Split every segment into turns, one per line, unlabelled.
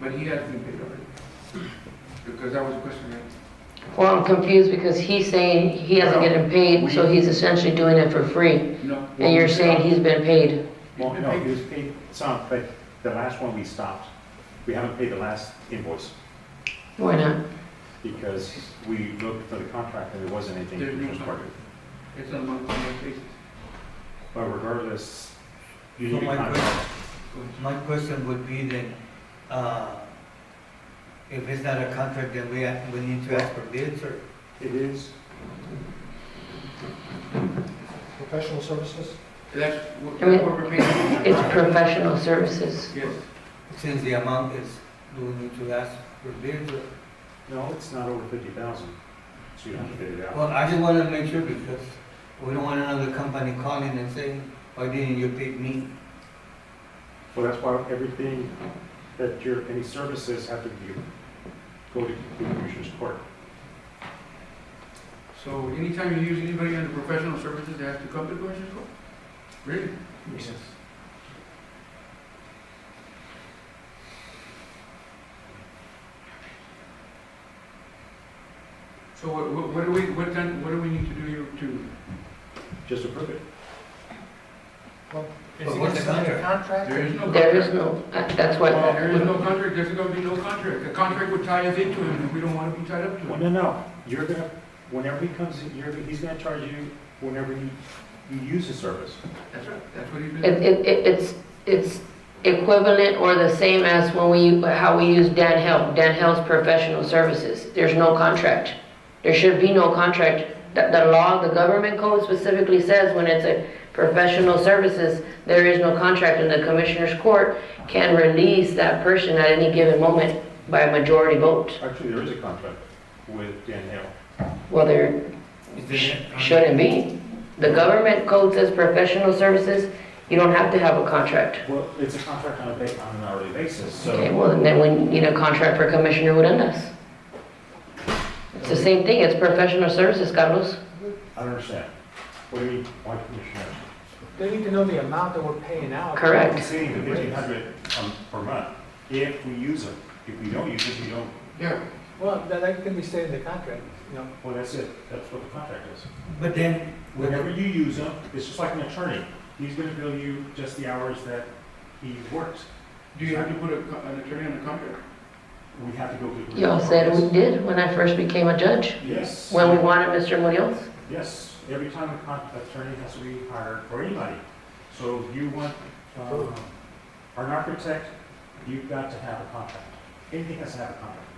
but he has been paid already. Because that was a question, right?
Well, I'm confused because he's saying he hasn't gotten paid, so he's essentially doing it for free.
No.
And you're saying he's been paid.
Well, no, he was paid some, but the last one we stopped, we haven't paid the last invoice
Why not?
because we looked for the contract and there wasn't anything.
There's no
which was part of it.
It's on a month-to-month basis.
But regardless, you
So
need a
my
contract.
My question would be then, uh, if it's not a contract, then we have, we need to ask for bids or?
It is,
Professional services?
That's what
I mean,
that's what we're paying.
It's professional services.
Yes,
Since the amount is, do we need to ask for bids or?
no, it's not over fifty thousand, so you don't have to bid it out.
Well, I just wanted to make sure because we don't want another company calling and saying, why didn't you pick me?
Well, that's why everything that your, any services have to be, go to the commissioner's court.
so anytime you use anybody under professional services, they have to come to Commissioner's Court? Really?
Yes.
So what, what- what do we, what then, what do we need to do here to?
Just approve it.
But what's the contract?
There is no.
There is
contract.
no, uh, that's what,
Well, There is no contract, there's gonna be no contract. The contract would tie us into him, and we don't wanna be tied up to
Well,
him.
no, no, you're gonna, whenever he comes in, you're, he's gonna charge you whenever you, you use his service.
That's right, that's what he's
it,
been.
it, it- it's, it's equivalent or the same as when we, how we use Dan Hell. Dan Hell's professional services. There's no contract. There should be no contract. The, the law, the government code specifically says when it's a professional services, there is no contract and the commissioner's court can release that person at any given moment by a majority vote.
Actually, there is a contract with Dan Hale.
Well, there,
Is there
Sh-
a contract?
Shouldn't be. The government code says professional services, you don't have to have a contract.
Well, it's a contract on a ba, on an hourly basis,
Okay,
so.
well, and then we need a contract for Commissioner Urandez. It's the same thing, it's professional services, Carlos.
I don't understand. What do you mean, why commissioner?
They need to know the amount that we're paying out.
Correct.
I'm saying the fifteen hundred um, per month, if we use them. If we don't use it, we don't.
Yeah,
Well, that, that can be stated in the contract, you know.
Well, that's it. That's what the contract is.
But then, but
Whenever
then-
you use them, it's just like an attorney. He's gonna bill you just the hours that he works.
do you have to put a co- an attorney on the contract?
We have to go to. the-
Y'all said we did when I first became a judge,
Yes.
when we wanted Mr. Munoz.
Yes, every time a con- attorney has to be hired for anybody. So if you want, um, an architect, you've got to have a contract. Anything has to have a contract.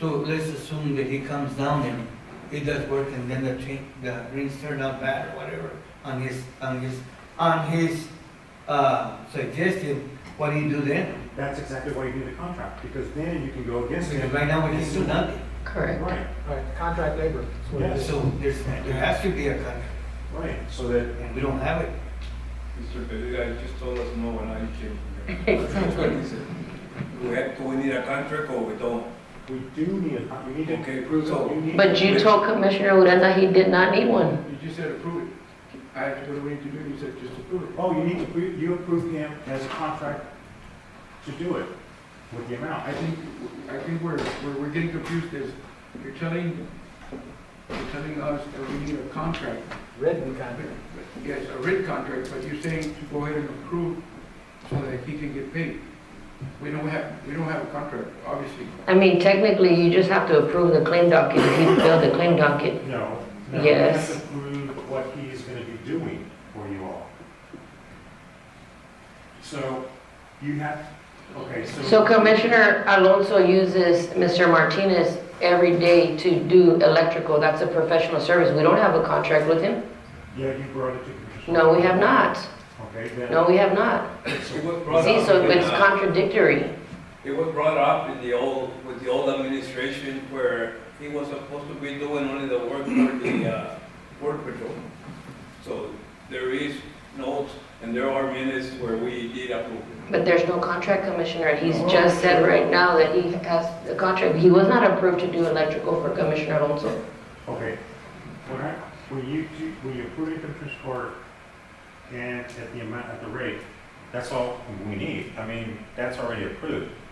so let's assume that he comes down and he does work and then the train, the rings turn out bad or whatever on his, on his, on his, uh, suggestion, what do you do then?
That's exactly why you need a contract, because then you can go against
Because
it.
right now we can do nothing.
Correct.
Right,
Right, contract labor. is what it is.
So there's, there has to be a contract
right, so that,
and we don't have it.
Mr. Pereira just told us no when I came here. That's what he said. We have, do we need a contract or we don't?
we do need a, con- you need to.
Okay, approve so-
you need-
But you told Commissioner Urandez he did not need one.
You just said approve it. I have to, what do we need to do? You said just approve it.
Oh, you need to, appro- you approve him as a contract to do it with the amount.
I think, I think we're, we're, we're getting confused is, you're telling, you're telling us that we need a contract.
Written contract.
Yes, a written contract, but you're saying to go ahead and approve so that he can get paid. We don't have, we don't have a contract, obviously.
I mean, technically, you just have to approve the claim docket, if you build the claim docket.
No. no, you
Yes.
have to prove what he is gonna be doing for you all. So you have, okay, so.
So Commissioner Alonso uses Mr. Martinez every day to do electrical, that's a professional service, we don't have a contract with him?
Yeah, you brought it to Commissioner.
No, we have not,
Okay, then.
no, we have not.
It was brought
See,
up
so
in,
it's
uh,
contradictory,
It was brought up in the old, with the old administration where he was supposed to be doing only the work for the, uh, Border Patrol. So there is notes and there are minutes where we did approve it.
but there's no contract, Commissioner, and he's just said right now that he has the contract, he was not approved to do electrical for Commissioner Alonso.
Okay, when I, when you, do- when you approve it to Commissioner's court and at the amount, at the rate, that's all we need. I mean, that's already approved.